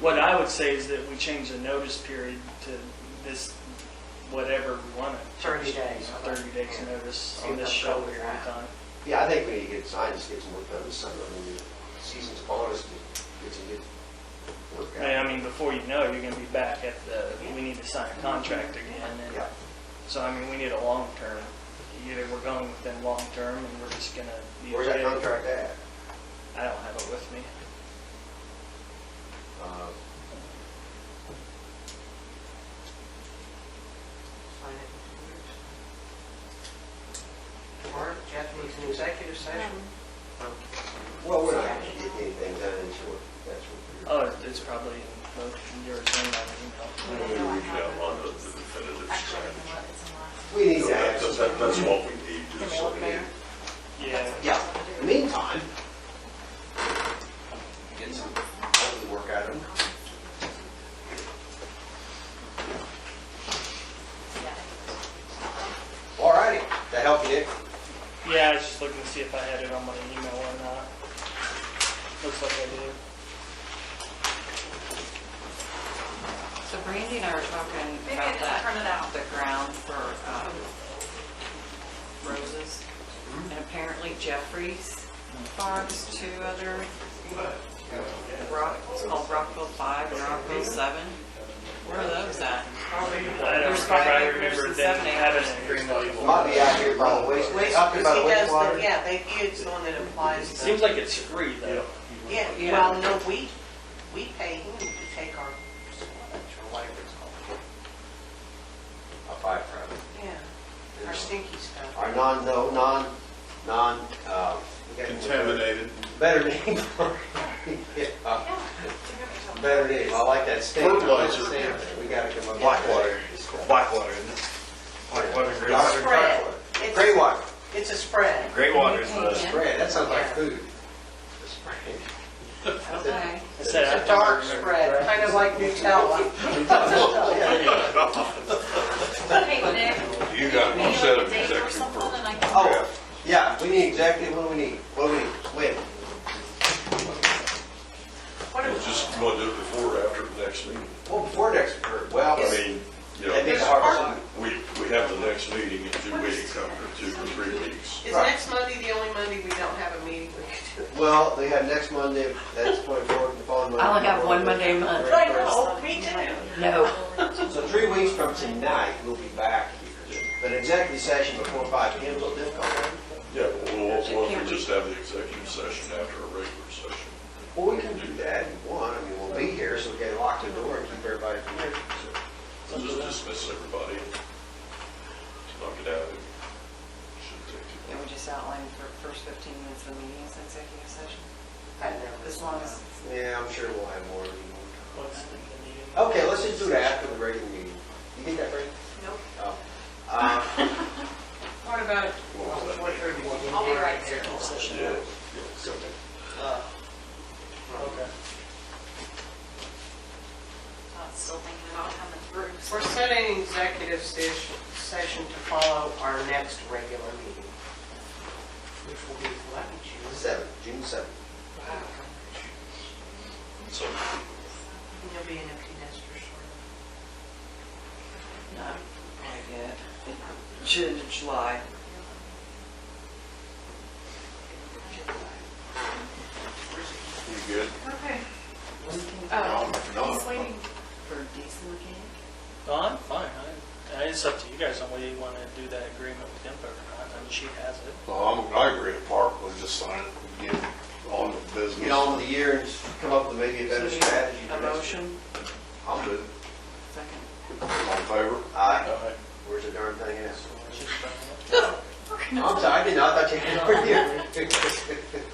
What I would say is that we change the notice period to this, whatever we want to. 30 days. Thirty days notice See on if this they'll show go with here that. anytime. Yeah, I think we need to get science, get some work done this summer. I mean, the season's upon us, get some good work I mean, out. I mean, before you know, it, you're going to be back at the, we need to sign a contract again. and- Mm-hmm. Yeah. So, I mean, we need a long term. Either we're going with them long term and we're just going to. Where's that contract at? I don't have it with me. Uh, Sign it. Warrant, Jeff needs an executive session. Well, we're not gonna get anything done in short, that's what Oh, it's probably in both yours and my email. We reach out on the the definitive strategy. we're, we need to have some. That's, that- that's what we need to say. Yeah. Yeah, in the meantime, get some, hopefully work out of them. All righty, that help you, Nick? Yeah, I was just looking to see if I had it on my email or not. Looks like I do. Um, So Brandy and I were talking Maybe I about didn't that, turn it out. the ground for um, roses. And apparently Jeffries farms two other, Rock- it's called Rockville 5 and Rockville 7. Where are those at? I don't There's remember, five I acres remember and them seven having acres. an agreement. Might be out here by the waste, Waste- up he here by the does the- wastewater. Yeah, they, it's the one that applies to. Seems like it's free though. Yeah, Yeah. well, no, we, we pay him to take our sludge or whatever it's called. A fire problem. Yeah, our stinky stuff. Our non, no, non, non, uh. we got- Contaminated. Better name. Yeah, Better name, I like that statement. Fertilizer. We gotta come up. Blackwater. Blackwater, isn't it? Blackwater, Blackwater, Spread. Blackwater. It's- Gray water, It's a spread. Great water is the, spread, that sounds like Yeah. food. Okay. I It's said, I It's a don't dark remember. spread, kind of like Nutella. Yeah. You got one set of executive privilege. Oh, yeah, we need executive, what do we need? What do we need? Wait, What We'll is Just, you want to do it before or after the next meeting? well, before next, or- well, I that'd mean, be you know, the hardest. we, we have the next meeting in two weeks, after two or three weeks. Is next Monday the only Monday we don't have a meeting? Well, they have next Monday, that's twenty-four, the following Monday. I only have one Monday a month. I know, me too. No. So three weeks from tonight, we'll be back here. But executive session before five p.m. is a little difficult. Yeah, but we'll, we'll, we'll just have the executive session after a regular session. Well, we can do that if you want, I mean, we'll be here, so we can lock the door and keep everybody from here. We'll just dismiss everybody. Knock it out. Shouldn't take too Can long. we just outline for first 15 minutes of the meeting as executive session? I know. As long as, Yeah, I'm sure we'll have more of you. What's the meeting? Okay, let's just do that after the regular meeting. You get that, Brady? Nope. Oh. Uh, What about? Well, that may- I'll be right there. Yeah, yeah, okay. Okay. Still thinking about coming through. We're setting executive sesh- session to follow our next regular meeting, which will be what, June? seven, June seventh. So, And You'll be an empty nester shortly. no, probably good. June, July. you good? Okay. Oh, No. He's waiting. for diesel again? No, I'm fine. I- I- It's up to you guys on whether you want to do that agreement with IMPA or not. I mean, she has it. Well, I'm, I agree with Park, we'll just sign it and get on with business. Get on with the year and come up with maybe a better So, strategy. for A next motion? year. I'll do it. Second. All in favor? Aye. Aye. Where's the darn thing at? She's done it. I'm sorry, I did not, I thought you had it over here.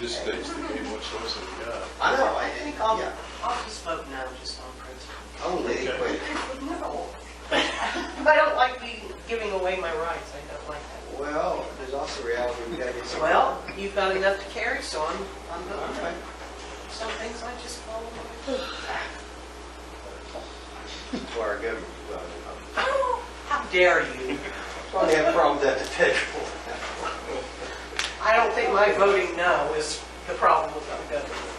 This states the game, what's supposed to be got. I know, I didn't call you. I'll just vote no, just on principle. I'm a lady Okay. quick. No. I don't like being, giving away my rights, I don't like that. Well, there's also reality, we gotta get some. Well, you've got enough to carry, so I'm, I'm All voting right. no. Some things I just follow. my- For our government, well, uh, How dare you? probably have a problem with that detectable. I don't think my voting no is the problem with the government.